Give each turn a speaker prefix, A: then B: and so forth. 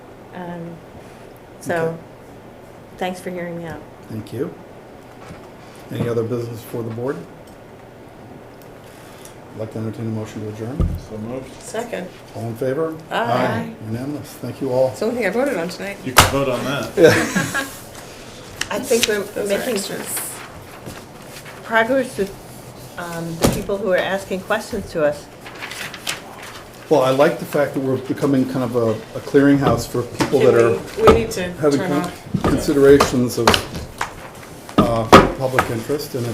A: Um, So,
B: Okay.
A: thanks for hearing me out.
B: Thank you. Any other business for the board? I'd Like to entertain a motion to adjourn.
C: So moved.
D: Second.
B: All in favor?
A: Aye.
B: Unanimous. Thank you all.
D: It's the only thing I voted on tonight.
C: You can vote on that.
D: I think we're
A: are
D: making
A: extras.
D: progress with um, the people who are asking questions to us.
B: Well, I like the fact that we're becoming kind of a a clearinghouse for people that are
E: Can we, we need to
B: having
E: turn
B: con-
E: off.
B: considerations of uh, public interest and